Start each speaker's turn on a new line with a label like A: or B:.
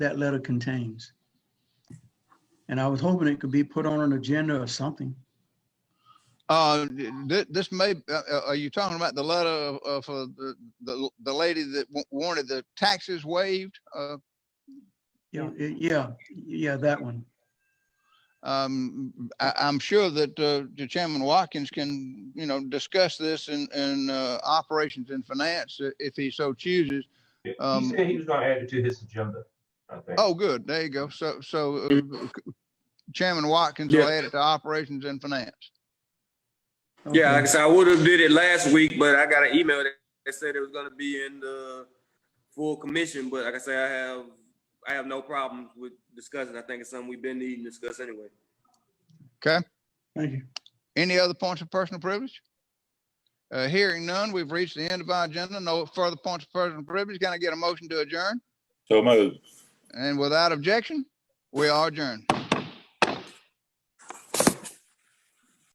A: that letter contains. And I was hoping it could be put on an agenda or something.
B: Uh, th- this may, uh, uh, are you talking about the letter of, of uh, the, the, the lady that w- wanted the taxes waived? Uh,
A: Yeah, yeah, yeah, that one.
B: um, I, I'm sure that, uh, the Chairman Watkins can, you know, discuss this in, in, uh, operations and finance i- if he so chooses.
C: He
B: Um,
C: said he was gonna add it to his agenda, I think.
B: Oh, good. There you go. So, so uh, Chairman Watkins will
D: Yeah.
B: add it to operations and finance.
D: Yeah, like I
A: Okay.
D: said, I would have did it last week, but I got an email that that said it was gonna be in the full commission, but like I say, I have, I have no problem with discussing. I think it's something we've been needing to discuss anyway.
A: Thank you.
B: Any other points of personal privilege? Uh, hearing none, we've reached the end of our agenda. No further points of personal privilege. Can I get a motion to adjourn?
E: So moved.
B: And without objection, we are adjourned.